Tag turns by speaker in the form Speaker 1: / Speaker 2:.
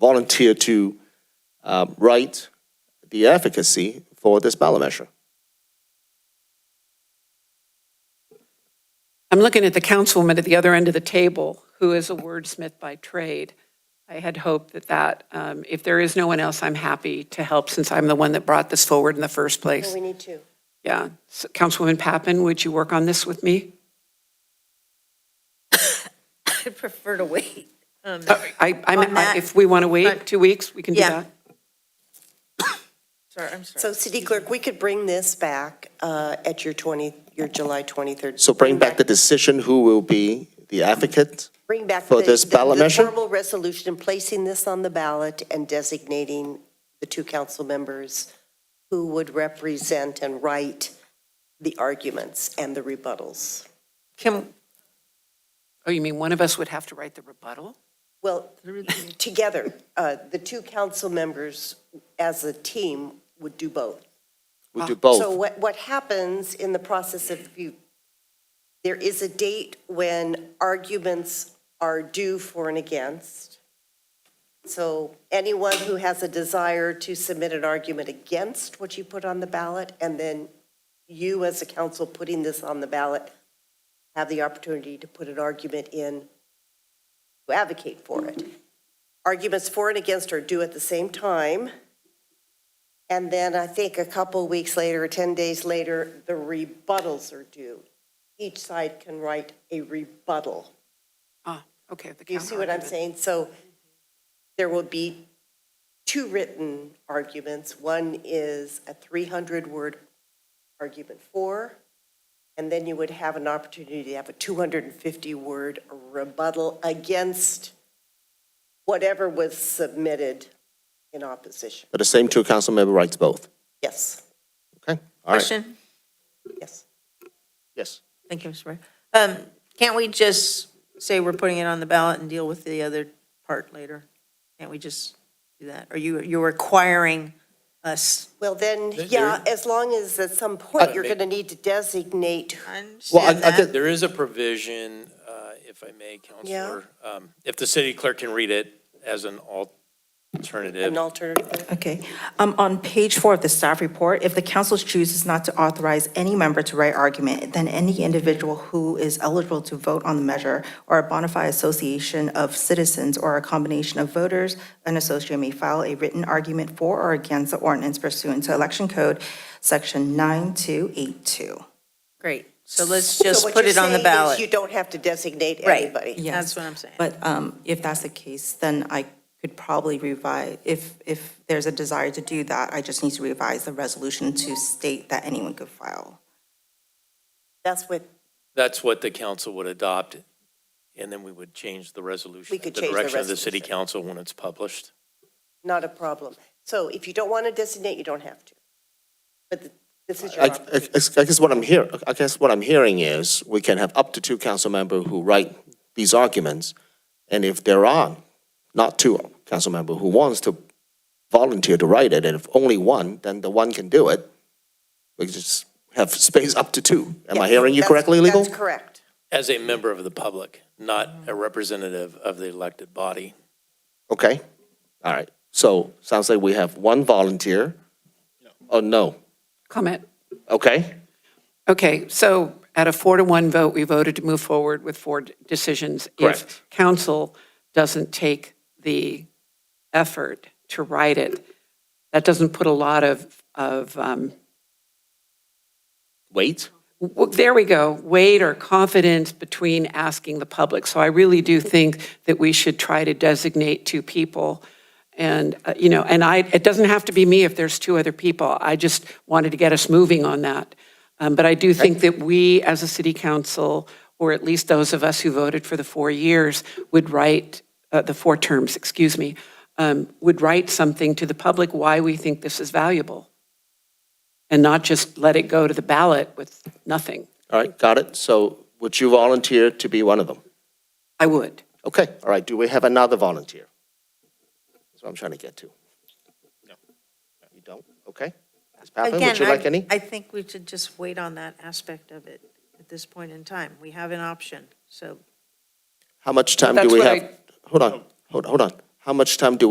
Speaker 1: volunteer to uh, write the advocacy for this ballot measure.
Speaker 2: I'm looking at the councilwoman at the other end of the table, who is a wordsmith by trade. I had hoped that that, um, if there is no one else, I'm happy to help since I'm the one that brought this forward in the first
Speaker 3: No,
Speaker 2: place.
Speaker 3: we need two.
Speaker 2: Yeah. So, Councilwoman Pappen, would you work on this with me?
Speaker 3: I'd prefer to wait. Um,
Speaker 2: Uh, I,
Speaker 3: On
Speaker 2: I'm,
Speaker 3: that-
Speaker 2: if we want to wait
Speaker 3: But-
Speaker 2: two weeks, we can do
Speaker 3: Yeah.
Speaker 2: that.
Speaker 4: Sorry, I'm sorry.
Speaker 3: So city clerk, we could bring this back uh, at your 20, your July 23rd.
Speaker 1: So bring back the decision who will be the advocate.
Speaker 3: Bring back.
Speaker 1: for
Speaker 3: the-
Speaker 1: this
Speaker 3: the-
Speaker 1: ballot measure?
Speaker 3: The formal resolution, placing this on the ballot and designating the two council members who would represent and write the arguments and the rebuttals.
Speaker 4: Can,
Speaker 2: Oh, you mean one of us would have to write the rebuttal?
Speaker 3: Well, together, uh, the two council members as a team would do both.
Speaker 1: We'll do
Speaker 3: So
Speaker 1: both.
Speaker 3: what, what happens in the process of you, there is a date when arguments are due for and against. So anyone who has a desire to submit an argument against what you put on the ballot, and then you as a council putting this on the ballot, have the opportunity to put an argument in to advocate for it. Arguments for and against are due at the same time. And then I think a couple weeks later, 10 days later, the rebuttals are due. Each side can write a rebuttal.
Speaker 2: Ah, okay. the
Speaker 3: Do you see what I'm
Speaker 2: counterargument.
Speaker 3: saying? So there will be two written arguments. One is a 300-word argument for, and then you would have an opportunity to have a 250-word rebuttal against whatever was submitted in opposition.
Speaker 1: But the same two council member writes both.
Speaker 3: Yes,
Speaker 1: Okay? All right.
Speaker 5: Question?
Speaker 3: yes.
Speaker 1: Yes.
Speaker 5: Thank you, Mr. Mayor. Um, Can't we just say we're putting it on the ballot and deal with the other part later? Can't we just do that? Are you, you're requiring us?
Speaker 3: Well, then, yeah, as long as at some point, you're going to need to designate,
Speaker 5: I
Speaker 1: Well, I-
Speaker 5: understand
Speaker 1: I did-
Speaker 5: that.
Speaker 6: There is a provision, uh, if I may, Counselor, um, if the city clerk can read it as an alternative.
Speaker 3: an alternative.
Speaker 7: Okay. Um, On page four of the staff report, if the council chooses not to authorize any member to write argument, then any individual who is eligible to vote on the measure or a bona fide association of citizens or a combination of voters, an associate may file a written argument for or against the ordinance pursuant to Election Code, Section 9282.
Speaker 5: Great. So let's
Speaker 3: So
Speaker 5: just
Speaker 3: what
Speaker 5: put
Speaker 3: you're
Speaker 5: it on the
Speaker 3: saying is
Speaker 5: ballot.
Speaker 3: You don't have to designate
Speaker 5: Right.
Speaker 3: anybody.
Speaker 7: Yes.
Speaker 5: That's what I'm saying.
Speaker 7: But um, if that's the case, then I could probably revise, if, if there's a desire to do that, I just need to revise the resolution to state that anyone could file.
Speaker 3: That's what,
Speaker 6: That's what the council would adopt, and then we would change the resolution.
Speaker 3: We
Speaker 6: at
Speaker 3: could change the
Speaker 6: direction of the city
Speaker 3: resolution.
Speaker 6: council when it's published.
Speaker 3: not a problem. So if you don't want to designate, you don't have to. But th- this is your
Speaker 1: I, I-
Speaker 3: opportunity.
Speaker 1: I guess what I'm hear, I guess what I'm hearing is we can have up to two council member who write these arguments. And if there are not two council member who wants to volunteer to write it, and if only one, then the one can do it. We just have space up to two. Am I
Speaker 3: Yes,
Speaker 1: hearing you
Speaker 3: that's-
Speaker 1: correctly, legal?
Speaker 3: That's correct.
Speaker 6: As a member of the public, not a representative of the elected body.
Speaker 1: Okay, all right. So sounds like we have one volunteer. Oh, no.
Speaker 2: Comment.
Speaker 1: Okay,
Speaker 2: Okay, so at a four to one vote, we voted to move forward with four d- decisions.
Speaker 1: Correct.
Speaker 2: If council doesn't take the effort to write it, that doesn't put a lot of, of, um,
Speaker 1: wait.
Speaker 2: w- there we go, weight or confidence between asking the public. So I really do think that we should try to designate two people. And, uh, you know, and I, it doesn't have to be me if there's two other people. I just wanted to get us moving on that. Um, But I do think that we, as a city council, or at least those of us who voted for the four years, would write, uh, the four terms, excuse me, um, would write something to the public why we think this is valuable and not just let it go to the ballot with nothing.
Speaker 1: All right, got it. So would you volunteer to be one of them?
Speaker 2: I would.
Speaker 1: Okay, all right, do we have another volunteer? That's what I'm trying to get to. No. You don't? Okay. Ms. Pappen, would
Speaker 5: Again,
Speaker 1: you
Speaker 5: I-
Speaker 1: like any?
Speaker 5: I think we should just wait on that aspect of it at this point in time. We have an option, so
Speaker 1: How much time do
Speaker 2: That's
Speaker 1: we
Speaker 2: what I-
Speaker 1: have? Hold on, hold, hold on. How much time do